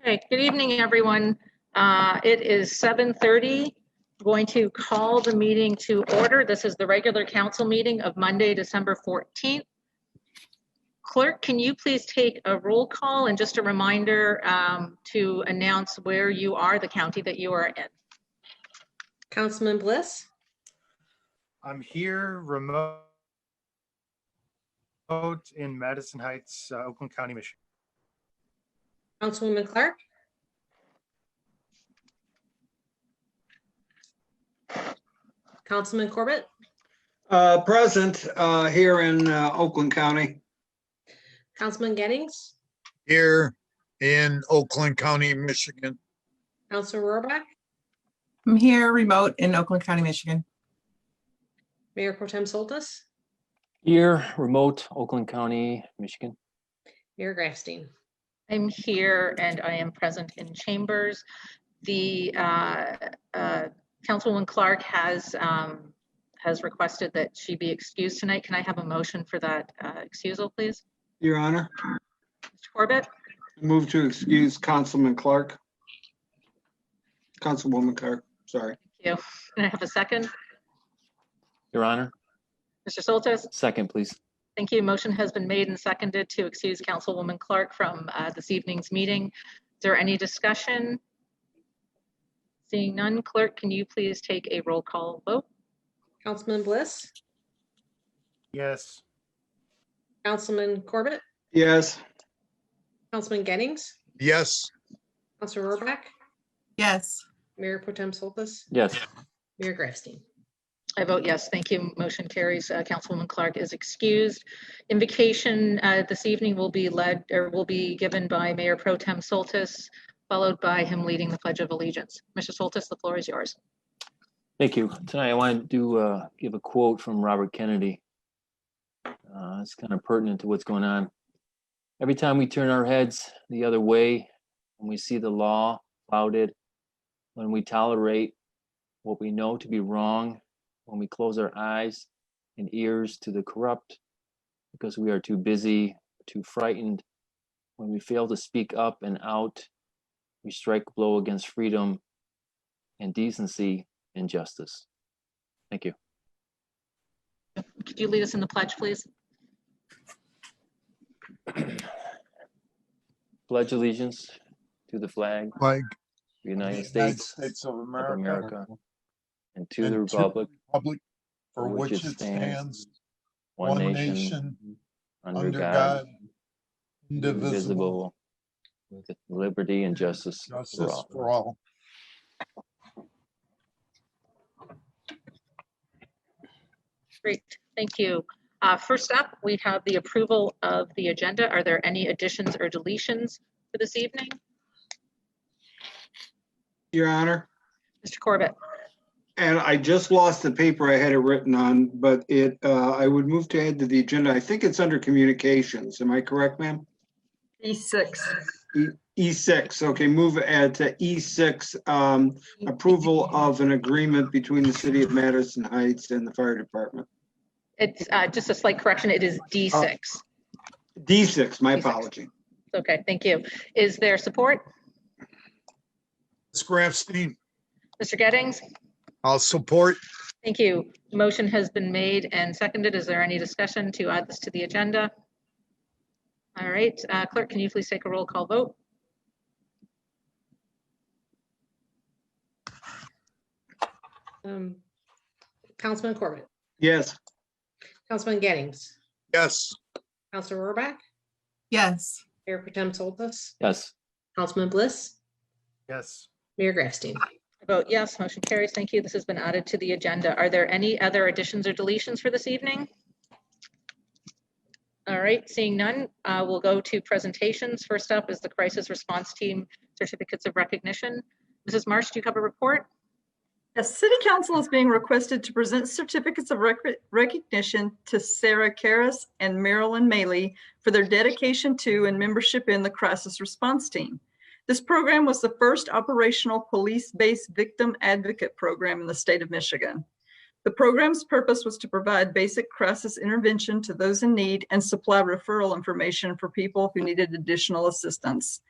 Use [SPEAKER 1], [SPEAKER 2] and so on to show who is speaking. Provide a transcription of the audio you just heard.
[SPEAKER 1] Okay, good evening, everyone. Uh, It is 7:30. Going to call the meeting to order. This is the regular council meeting of Monday, December 14th. Clerk, can you please take a roll call and just a reminder um, to announce where you are, the county that you are in?
[SPEAKER 2] Councilman Bliss,
[SPEAKER 3] I'm here remote remote in Madison Heights, uh, Oakland County, Michigan.
[SPEAKER 2] Councilwoman Clark, Councilman Corbett,
[SPEAKER 4] Uh, Present uh, here in uh, Oakland County.
[SPEAKER 2] Councilman Gettings,
[SPEAKER 5] here in Oakland County, Michigan.
[SPEAKER 2] Councilor Rohrbach,
[SPEAKER 6] I'm here remote in Oakland County, Michigan.
[SPEAKER 2] Mayor Pro Tem Soltis,
[SPEAKER 7] Here, remote Oakland County, Michigan.
[SPEAKER 2] Mayor Grafstein.
[SPEAKER 1] I'm here and I am present in chambers. The uh, uh, Councilwoman Clark has, um, has requested that she be excused tonight. Can I have a motion for that uh, excusal, please?
[SPEAKER 4] Your Honor,
[SPEAKER 1] Mr. Corbett,
[SPEAKER 4] move to excuse Councilman Clark. Councilwoman Clark, sorry.
[SPEAKER 1] can I have a second?
[SPEAKER 7] Your Honor,
[SPEAKER 1] Mr. Soltis,
[SPEAKER 7] second, please.
[SPEAKER 1] thank you. Motion has been made and seconded to excuse Councilwoman Clark from uh, this evening's meeting. Is there any discussion? Seeing none, clerk, can you please take a roll call vote?
[SPEAKER 2] Councilman Bliss,
[SPEAKER 3] Yes,
[SPEAKER 2] Councilman Corbett,
[SPEAKER 4] Yes,
[SPEAKER 2] Councilman Gettings,
[SPEAKER 5] Yes,
[SPEAKER 2] Councilor Rohrbach,
[SPEAKER 6] Yes,
[SPEAKER 2] Mayor Pro Tem Soltis,
[SPEAKER 7] Yes,
[SPEAKER 2] Mayor Grafstein.
[SPEAKER 1] I vote yes, thank you. Motion carries. Uh, Councilwoman Clark is excused. Invocation uh, this evening will be led, or will be given by Mayor Pro Tem Soltis, followed by him leading the Pledge of Allegiance. Mr. Soltis, the floor is yours.
[SPEAKER 7] thank you. Tonight, I wanted to uh, give a quote from Robert Kennedy. Uh, It's kind of pertinent to what's going on. Every time we turn our heads the other way, and we see the law flouted, when we tolerate what we know to be wrong, when we close our eyes and ears to the corrupt, because we are too busy, too frightened, when we fail to speak up and out, we strike a blow against freedom and decency and justice. Thank you.
[SPEAKER 1] Could you lead us in the pledge, please?
[SPEAKER 7] Pledge allegiance to the flag, of
[SPEAKER 5] like
[SPEAKER 7] the United States
[SPEAKER 5] of
[SPEAKER 7] of America, and to the republic,
[SPEAKER 5] Public for which it stands,
[SPEAKER 7] one nation, under God, indivisible, with liberty and justice for
[SPEAKER 5] Justice
[SPEAKER 7] all.
[SPEAKER 5] for all.
[SPEAKER 1] Great, thank you. Uh, First up, we have the approval of the agenda. Are there any additions or deletions for this evening?
[SPEAKER 4] Your Honor.
[SPEAKER 1] Mr. Corbett,
[SPEAKER 4] And I just lost the paper I had it written on, but it, uh, I would move to add to the agenda. I think it's under communications. Am I correct, ma'am? E6. E6, okay, move add to E6, um, approval of an agreement between the City of Madison Heights and the Fire Department.
[SPEAKER 1] it's uh, just a slight correction. It is D6.
[SPEAKER 4] D6, my
[SPEAKER 1] D6.
[SPEAKER 4] apology.
[SPEAKER 1] Okay, thank you. Is there support?
[SPEAKER 5] Ms. Grafstein,
[SPEAKER 1] Mr. Gettings?
[SPEAKER 5] I'll support.
[SPEAKER 1] Thank you. Motion has been made and seconded. Is there any discussion to add this to the agenda? All right, uh, clerk, can you please take a roll call vote?
[SPEAKER 2] Um, Councilman Corbett,
[SPEAKER 4] Yes.
[SPEAKER 2] Councilman Gettings,
[SPEAKER 5] Yes,
[SPEAKER 2] Councilor Rohrbach,
[SPEAKER 6] yes,
[SPEAKER 2] Mayor Pro Tem Soltis,
[SPEAKER 7] Yes,
[SPEAKER 2] Councilman Bliss,
[SPEAKER 3] yes,
[SPEAKER 2] Mayor Grafstein.
[SPEAKER 1] I Vote yes, motion carries. Thank you. This has been added to the agenda. Are there any other additions or deletions for this evening? All right, seeing none, uh, we'll go to presentations. First up is the Crisis Response Team Certificates of Recognition. Mrs. Marsh, do you have a report?
[SPEAKER 8] Yes, City Council is being requested to present certificates of rec- recognition to Sarah Karas and Marilyn Maley for their dedication to and membership in the Crisis Response Team. This program was the first operational police-based victim advocate program in the state of Michigan. The program's purpose was to provide basic crisis intervention to those in need and supply referral information for people who needed additional assistance.